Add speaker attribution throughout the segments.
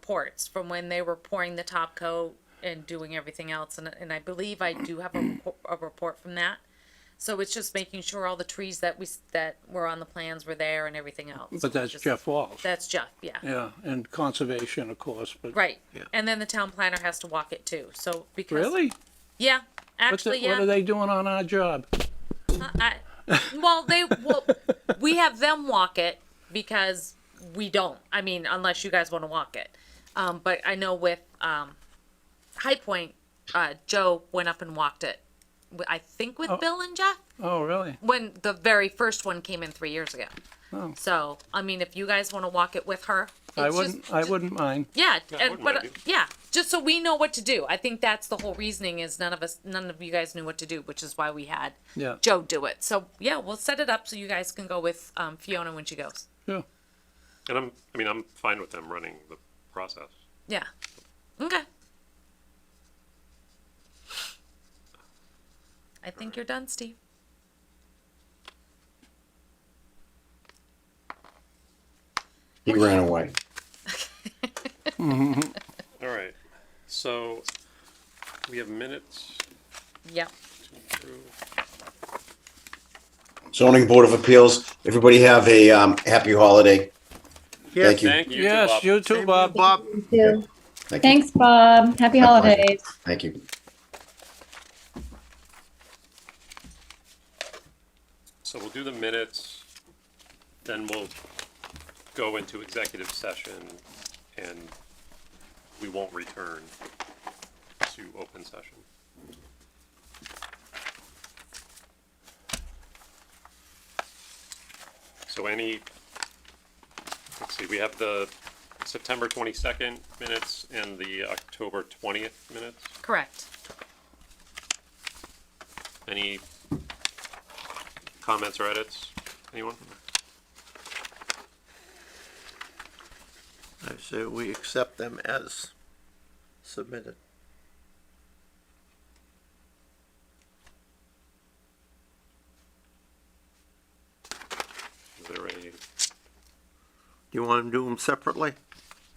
Speaker 1: reports from when they were pouring the top coat and doing everything else. And, and I believe I do have a,
Speaker 2: Mm.
Speaker 1: repo- a report from that. So it's just making sure all the trees that we, s- that were on the plans were there and everything else.
Speaker 2: But that's
Speaker 1: Just-
Speaker 2: Jeff Walsh.
Speaker 1: That's Jeff, yeah.
Speaker 2: Yeah, and conservation, of course, but.
Speaker 1: Right.
Speaker 2: Yeah.
Speaker 1: And then the town planner has to walk it too. So because.
Speaker 2: Really?
Speaker 1: Yeah,
Speaker 2: What's
Speaker 1: actually,
Speaker 2: it, what
Speaker 1: yeah.
Speaker 2: are they doing on our job?
Speaker 1: I, well, they well, we have them walk it because we don't. I mean, unless you guys want to walk it. Um, but I know with um, High Point, uh, Joe went up and walked it. w- I think with Bill and Jeff
Speaker 2: Oh, really?
Speaker 1: when the very first one came in three years ago.
Speaker 2: Oh.
Speaker 1: So I mean, if you guys want to walk it with her,
Speaker 2: I
Speaker 1: it's just-
Speaker 2: wouldn't, I wouldn't mind.
Speaker 1: yeah,
Speaker 3: I
Speaker 1: and,
Speaker 3: wouldn't
Speaker 1: but
Speaker 3: mind
Speaker 1: uh,
Speaker 3: it.
Speaker 1: yeah, just so we know what to do. I think that's the whole reasoning is none of us, none of you guys knew what to do, which is why we had
Speaker 2: Yeah.
Speaker 1: Joe do it. So yeah, we'll set it up so you guys can go with um, Fiona when she goes.
Speaker 2: Yeah.
Speaker 3: And I'm, I mean, I'm fine with them running the process.
Speaker 1: Yeah. Okay. I think you're done, Steve.
Speaker 4: He ran away.
Speaker 3: All right, so we have minutes
Speaker 1: Yep.
Speaker 3: through.
Speaker 4: Zoning Board of Appeals, everybody have a um, happy holiday. Thank you.
Speaker 3: Thank you.
Speaker 2: Yes,
Speaker 3: Bob.
Speaker 2: you too, Bob.
Speaker 5: Bob,
Speaker 6: too.
Speaker 4: Thank you.
Speaker 6: Thanks, Bob. Happy holidays.
Speaker 4: Thank you.
Speaker 3: So we'll do the minutes, then we'll go into executive session and we won't return to open session. So any, let's see, we have the September twenty-second minutes and the October twentieth minutes.
Speaker 1: Correct.
Speaker 3: Any comments or edits? Anyone?
Speaker 5: I say we accept them as submitted.
Speaker 3: Is there a?
Speaker 5: Do you want to do them separately?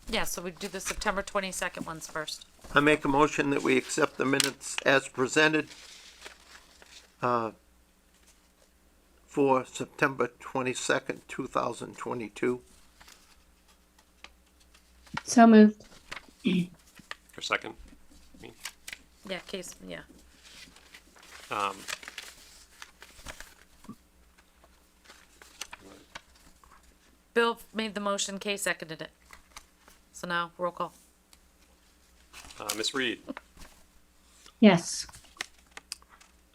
Speaker 1: Yeah. So we do the September 22nd ones first.
Speaker 5: I make a motion that we accept the minutes as presented uh, for September 22nd, 2022.
Speaker 6: So moved.
Speaker 3: Or second?
Speaker 1: Yeah. Case. Yeah.
Speaker 3: Um,
Speaker 1: Bill made the motion. Kay seconded it. So now roll call.
Speaker 3: uh, Ms. Reed,
Speaker 6: Yes.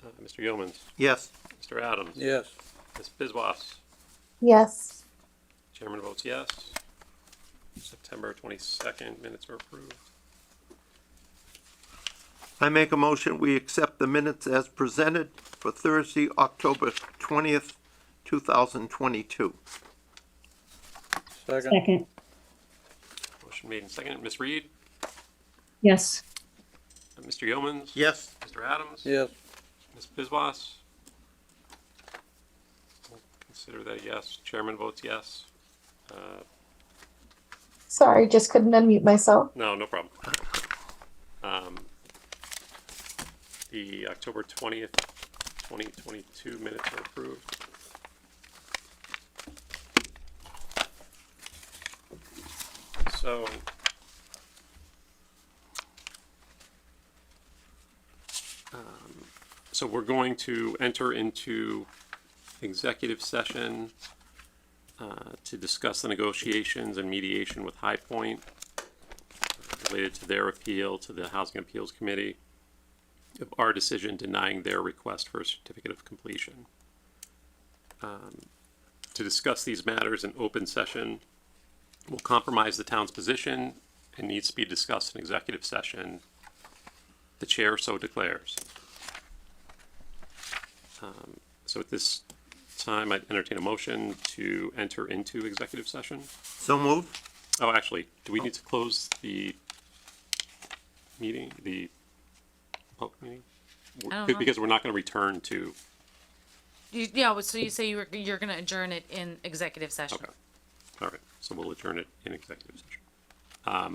Speaker 3: uh, Mr. Yeomans,
Speaker 5: Yes,
Speaker 3: Mr. Adams,
Speaker 2: Yes.
Speaker 3: Ms. Bizwas,
Speaker 6: Yes.
Speaker 3: chairman votes yes. September twenty-second, minutes are approved.
Speaker 5: I make a motion we accept the minutes as presented for Thursday, October 20th, 2022.
Speaker 2: Second.
Speaker 6: Second.
Speaker 3: Motion made and seconded. Ms. Reed,
Speaker 6: Yes.
Speaker 3: uh, Mr. Yeomans.
Speaker 5: Yes,
Speaker 3: Mr. Adams.
Speaker 2: Yes.
Speaker 3: Ms. Bizwas. We'll Consider that a yes. Chairman votes yes. Uh,
Speaker 7: Sorry, just couldn't unmute myself.
Speaker 3: No, no problem. Um, The October 20th, 2022 minutes are approved. So um, so we're going to enter into executive session uh, to discuss the negotiations and mediation with High Point related to their appeal to the Housing Appeals Committee of our decision denying their request for a certificate of completion. Um, To discuss these matters in open session will compromise the town's position and needs to be discussed in executive session. The chair so declares. Um, So at this time, I'd entertain a motion to enter into executive session.
Speaker 5: so moved.
Speaker 3: Oh, actually, do we need to close the meeting, the public meeting?
Speaker 1: I don't
Speaker 3: Be-
Speaker 1: know.
Speaker 3: Because we're not gonna return to,
Speaker 1: You, yeah. So you say you were, you're going to adjourn it in executive session.
Speaker 3: okay. All right, so we'll adjourn it in executive session.